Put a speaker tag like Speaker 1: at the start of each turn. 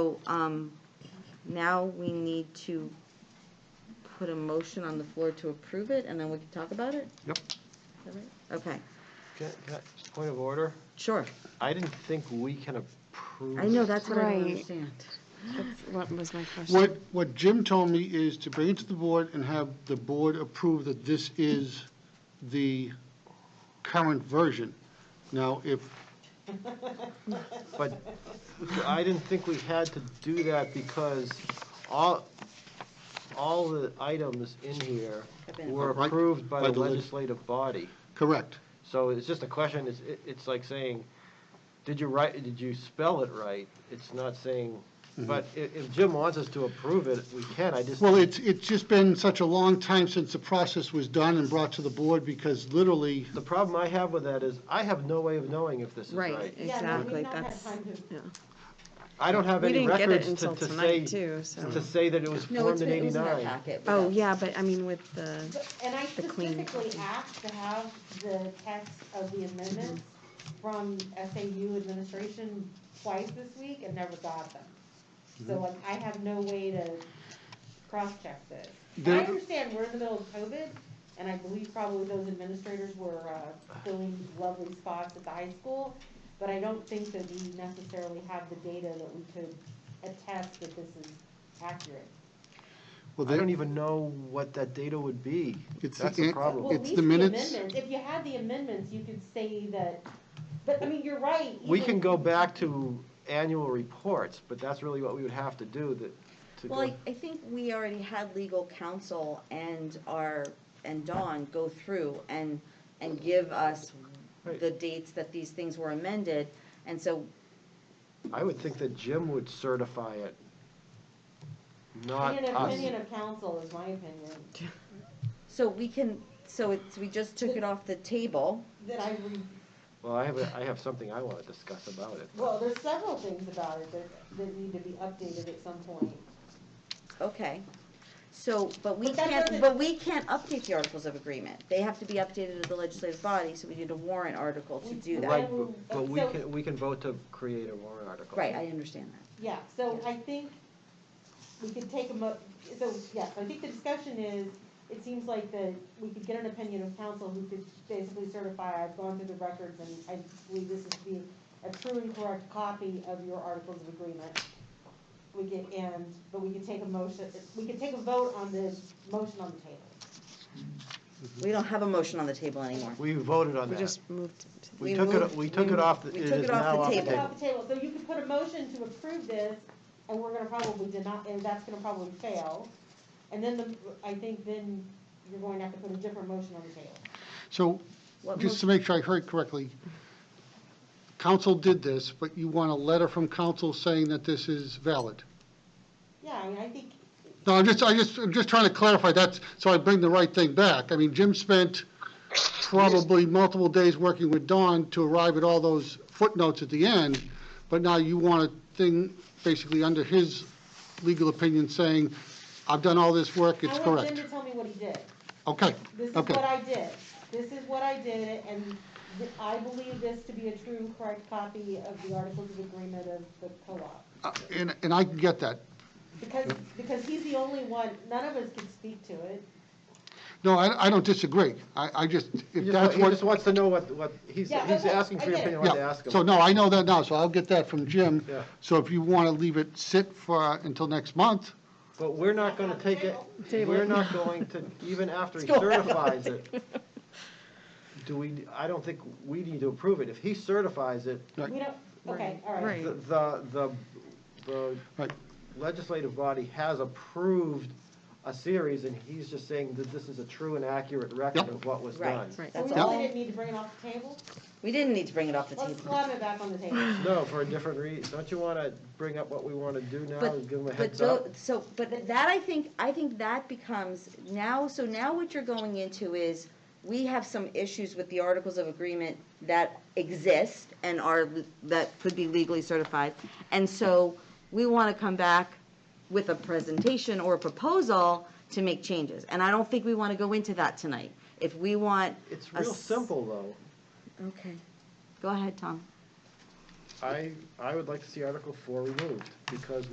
Speaker 1: So, um, now we need to put a motion on the floor to approve it, and then we can talk about it?
Speaker 2: Yep.
Speaker 1: Is that right? Okay,
Speaker 2: Can- can I- just Point of order,
Speaker 1: sure.
Speaker 2: I didn't think we can approve.
Speaker 1: I know, that's what I don't
Speaker 3: Right.
Speaker 1: understand.
Speaker 3: That's What was my question?
Speaker 4: What, what Jim told me is to bring it to the board and have the board approve that this is the current version. Now, if,
Speaker 2: But I didn't think we had to do that because all, all the items in here
Speaker 1: Have been
Speaker 2: were
Speaker 4: Right,
Speaker 2: approved by
Speaker 4: by
Speaker 2: the
Speaker 4: the leg-
Speaker 2: legislative body.
Speaker 4: correct,
Speaker 2: So it's just a question, it's, it- it's like saying, did you write, did you spell it right? It's not saying, but i- if Jim wants us to approve it, we can, I just.
Speaker 4: Mm-hmm. well, it's, it's just been such a long time since the process was done and brought to the board, because literally,
Speaker 2: The problem I have with that is, I have no way of knowing if this is
Speaker 1: Right.
Speaker 2: right.
Speaker 5: Yeah, no, we've
Speaker 3: Exactly,
Speaker 5: not had
Speaker 3: that's-
Speaker 5: time to-
Speaker 2: I don't have
Speaker 3: We
Speaker 2: any
Speaker 3: didn't get it
Speaker 2: records to,
Speaker 3: until
Speaker 2: to
Speaker 3: tonight,
Speaker 2: say,
Speaker 3: too, so.
Speaker 2: to say that it was
Speaker 1: No, it's
Speaker 2: formed in
Speaker 1: been, it was in our
Speaker 2: eighty-nine.
Speaker 1: packet. but
Speaker 3: Oh,
Speaker 1: that's-
Speaker 3: yeah, but I mean with the,
Speaker 5: but- And I
Speaker 3: The clean
Speaker 5: specifically
Speaker 3: copy.
Speaker 5: asked to have the text of the amendments from SAU administration twice this week and never got them. So
Speaker 3: Mm-hmm.
Speaker 5: like, I have no way to cross-check this. And I
Speaker 4: There-
Speaker 5: understand we're in the middle of COVID, and I believe probably those administrators were uh, filling lovely spots at the high school, but I don't think that we necessarily have the data that we could attest that this is accurate.
Speaker 4: well,
Speaker 2: I
Speaker 4: they
Speaker 2: don't even know what that data would be.
Speaker 4: It's the
Speaker 2: That's the
Speaker 4: an-
Speaker 5: Well,
Speaker 2: problem.
Speaker 5: at
Speaker 4: It's
Speaker 5: least
Speaker 4: the
Speaker 5: the
Speaker 4: minutes.
Speaker 5: amendments, if you had the amendments, you could say that, but, I mean, you're right.
Speaker 2: We
Speaker 5: even-
Speaker 2: can go back to annual reports, but that's really what we would have to do that, to
Speaker 1: Well,
Speaker 2: go.
Speaker 1: I, I think we already had legal counsel and our, and Dawn go through and, and give us
Speaker 2: Right.
Speaker 1: the dates that these things were amended, and so
Speaker 2: I would think that Jim would certify it, not
Speaker 5: In an
Speaker 2: us.
Speaker 5: opinion of council is my opinion,
Speaker 1: So we can, so it's, we just took it off the table.
Speaker 5: that I, re-
Speaker 2: Well, I have, a- I have something I want to discuss about it.
Speaker 5: well, there's several things about it that, that need to be updated at some point.
Speaker 1: Okay. So, but we
Speaker 5: But that
Speaker 1: can't,
Speaker 5: doesn't-
Speaker 1: but we can't update the articles of agreement. They have to be updated at the legislative body, so we need a warrant article to do that.
Speaker 2: Right, but- but we
Speaker 5: So-
Speaker 2: can, we can vote to create a warrant article.
Speaker 1: Right, I understand that.
Speaker 5: Yeah, so I think we could take a mo, so, yes, I think the discussion is, it seems like that we could get an opinion of council who could basically certify, I've gone through the records and I believe this is the, a true and correct copy of your articles of agreement. We get, and, but we could take a motion, we could take a vote on the motion on the table.
Speaker 1: We don't have a motion on the table anymore.
Speaker 2: We voted on
Speaker 3: we
Speaker 2: that.
Speaker 3: just moved.
Speaker 2: We
Speaker 1: we
Speaker 2: took it,
Speaker 1: moved-
Speaker 2: we took
Speaker 1: we-
Speaker 2: it off, the-
Speaker 1: we
Speaker 2: it is
Speaker 1: took it off
Speaker 2: now
Speaker 1: the
Speaker 2: off the
Speaker 1: table.
Speaker 2: table.
Speaker 5: Off the table, so you could put a motion to approve this, and we're gonna probably deny, and that's gonna probably fail. And then the, I think then you're going to have to put a different motion on the table.
Speaker 4: so,
Speaker 1: What
Speaker 4: just to
Speaker 1: motion-
Speaker 4: make sure I heard correctly, council did this, but you want a letter from council saying that this is valid?
Speaker 5: Yeah, I mean, I think,
Speaker 4: No, I'm just, I just, I'm just trying to clarify that, so I bring the right thing back. I mean, Jim spent probably multiple days working with Dawn to arrive at all those footnotes at the end, but now you want a thing basically under his legal opinion saying, I've done all this work, it's
Speaker 5: I want them
Speaker 4: correct.
Speaker 5: to tell me what he did.
Speaker 4: Okay,
Speaker 5: This is
Speaker 4: Okay.
Speaker 5: what I did, this is what I did, and th- I believe this to be a true and correct copy of the Articles of Agreement of the co-op.
Speaker 4: Uh, and, and I can get that.
Speaker 5: Because, because he's the only one, none of us can speak to it.
Speaker 4: No, I, I don't disagree. I, I just,
Speaker 2: He
Speaker 4: if
Speaker 2: just
Speaker 4: that's
Speaker 2: wa- he
Speaker 4: what.
Speaker 2: just wants to know what, what, he's,
Speaker 5: Yeah, I
Speaker 2: he's
Speaker 5: will.
Speaker 2: asking for your
Speaker 5: I get
Speaker 2: opinion,
Speaker 5: it.
Speaker 2: I wanted to
Speaker 4: Yeah,
Speaker 2: ask him.
Speaker 4: So, no, I know that now, so I'll get that from Jim.
Speaker 2: Yeah.
Speaker 4: So if you want to leave it sit for, until next month,
Speaker 2: But we're not gonna take it,
Speaker 3: Table.
Speaker 2: we're not going to, even after he certifies it, do we, I don't think we need to approve it. If he certifies it,
Speaker 4: Right.
Speaker 5: We don't, okay, all
Speaker 3: Right.
Speaker 2: the, the, the- the
Speaker 4: Right.
Speaker 2: legislative body has approved a series, and he's just saying that this is a true and accurate record
Speaker 4: Yep.
Speaker 2: of what was
Speaker 1: Right,
Speaker 2: done.
Speaker 3: Right.
Speaker 5: So
Speaker 1: that's
Speaker 5: we
Speaker 1: all.
Speaker 5: really didn't need to bring it off the table?
Speaker 1: We didn't need to bring it off the
Speaker 5: Let's
Speaker 1: table.
Speaker 5: slam it back on the table.
Speaker 2: No, for a different reason. Don't you wanna bring up what we wanna do now
Speaker 1: But-
Speaker 2: and give him a
Speaker 1: But
Speaker 2: heads up?
Speaker 1: tho- so, but that I think, I think that becomes now, so now what you're going into is, we have some issues with the articles of agreement that exist and are, that could be legally certified. And so we want to come back with a presentation or a proposal to make changes. And I don't think we want to go into that tonight. If we want.
Speaker 2: It's
Speaker 1: a
Speaker 2: real
Speaker 1: s-
Speaker 2: simple, though.
Speaker 1: Okay. Go ahead, Tom.
Speaker 2: I, I would like to see Article Four removed, because